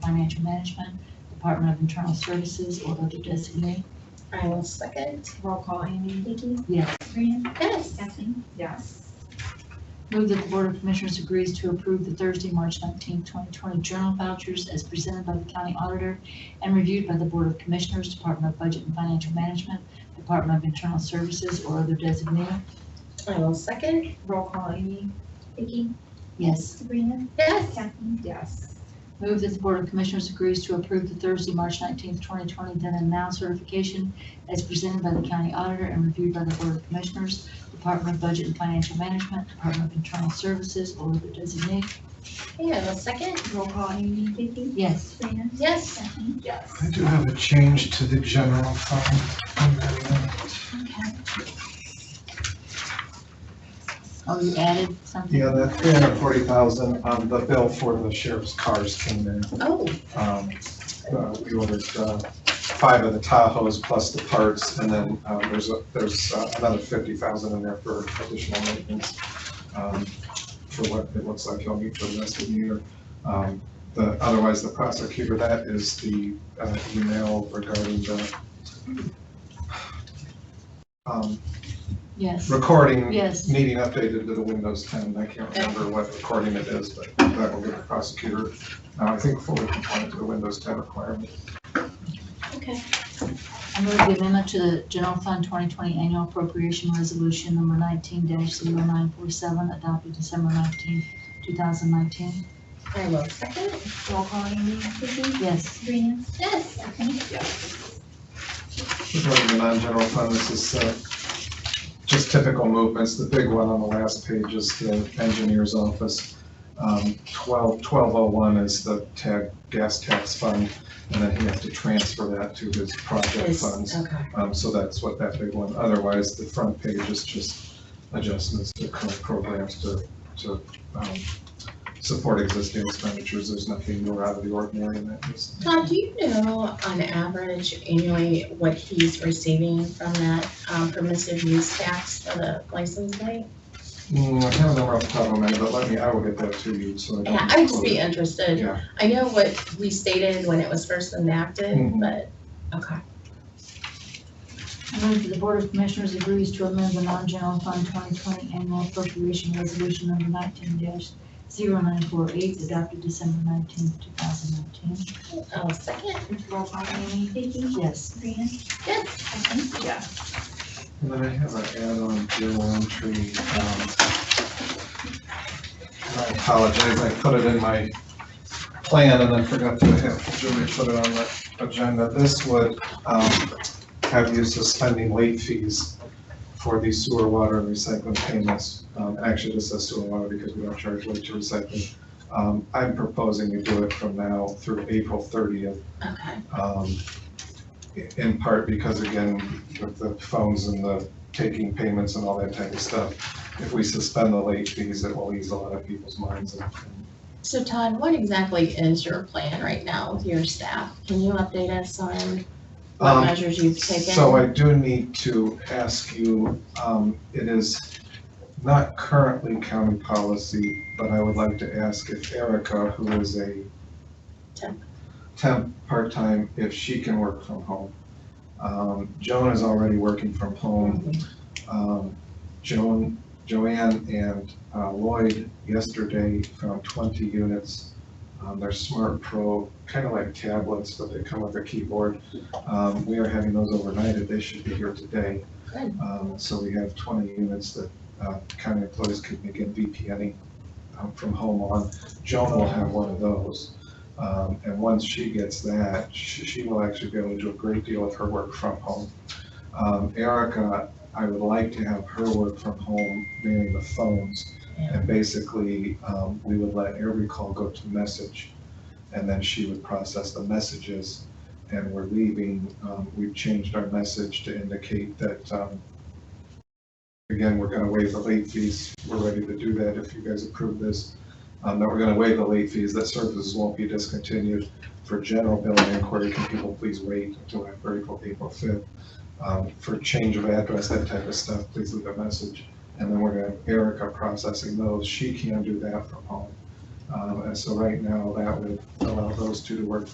Financial Management, Department of Internal Services, or other designee. I will second. Roll call, Amy? Vicky, Yes. Sabrina, Yes. Kathleen. Yes. Move that the Board of Commissioners agrees to approve the Thursday, March 19, 2020 journal vouchers as presented by the county auditor and reviewed by the Board of Commissioners, Department of Budget and Financial Management, Department of Internal Services, or other designee. I will second. Roll call, Amy? Vicky, Yes. Sabrina, Yes. Kathleen. Yes. Move that the Board of Commissioners agrees to approve the Thursday, March 19th, 2020 then and now certification as presented by the county auditor and reviewed by the Board of Commissioners, Department of Budget and Financial Management, Department of Internal Services, or the designee. Okay, I will second. Roll call, Amy? Vicky, Yes. Sabrina, Yes. Kathleen. Yes. I do have a change to the general fund. Oh, you added something? Yeah, that three hundred forty thousand, um, the bill for the sheriff's cars came in. Oh, Um, uh, we ordered, uh, five of the Tahoes plus the parts, and then, um, there's, a- there's uh, another fifty thousand in there for additional maintenance. um, For what it looks like he'll need for the rest of the year. Um, the, otherwise, the prosecutor, that is the, uh, email regarding the, um, Yes. recording Yes. needing updated to the Windows 10. I can't remember what recording it is, but that will be the prosecutor. Now, I think fully compliant to the Windows 10 requirement. okay. I move the amendment to the General Fund 2020 Annual Appropriation Resolution Number 19-0947 adopted December 19, 2019. I will second. Roll call, Amy? Vicky, Yes. Sabrina, Yes. Kathleen. Regarding the non-general fund, this is uh, just typical movements. The big one on the last page is the engineer's office. Um, 12 1201 is the tag, gas tax fund, and then he has to transfer that to his project Yes. uh, funds. Okay. Um, so that's what that big one, otherwise the front page is just adjustments to current programs to, to, um, support existing expenditures, there's nothing more out of the ordinary in that case. Todd, do you know on average annually what he's receiving from that um, permissive use tax for the license plate? Mm, I have a number off the top of my head, but let me, I will get that to you, so I don't. Yeah, I'd just be quote it. interested. Yeah, I know what we stated when it was first enacted, Mhm. but, okay. I move that the Board of Commissioners agrees to amend the non-general fund 2020 annual appropriation resolution number 19-0948 adopted December 19, 2019. I'll Oh, second. Roll call, Amy? Vicky, Yes. Sabrina, Yes. Kathleen. Yes. and then I have an add-on deal entry, um, I apologize, I put it in my plan and I forgot to have Julie put it on the agenda. This would um, have you suspending late fees for the sewer, water, and recycling payments. Um, Actually, this is sewer and water because we don't charge late to recycling. Um, I'm proposing we do it from now through April 30th. Okay. um, In part because, again, with the phones and the taking payments and all that type of stuff, if we suspend the late fees, it will ease a lot of people's minds and and So Todd, what exactly is your plan right now with your staff? Can you update us on what Um, measures you've taken? So I do need to ask you, um, it is not currently county policy, but I would like to ask if Erica, who is a Temp. temp, part-time, if she can work from home. Um, Joan is already working from home. Um, Joan, Joanne and uh, Lloyd yesterday found twenty units. Um, they're smart pro, kind of like tablets, but they come with a keyboard. Um, we are having those overnighted, they should be here today. Good. Um, so we have twenty units that, uh, county employees could begin VPNing, um, from home on. Joan will have one of those. Um, and once she gets that, she, she will actually be able to do a great deal of her work from home. Um, Erica, I would like to have her work from home, meaning the phones. Yeah. And basically, um, we would let every call go to message, and then she would process the messages and we're leaving, um, we've changed our message to indicate that, um, again, we're gonna waive the late fees. We're ready to do that if you guys approve this. Um, that we're gonna waive the late fees, that services won't be discontinued. For general billing inquiry, can people please wait until after April, April fifth? Um, for change of address, that type of stuff, please leave a message. And then we're gonna have Erica processing those. She can do that from home. Um, And so right now, that would allow those two to work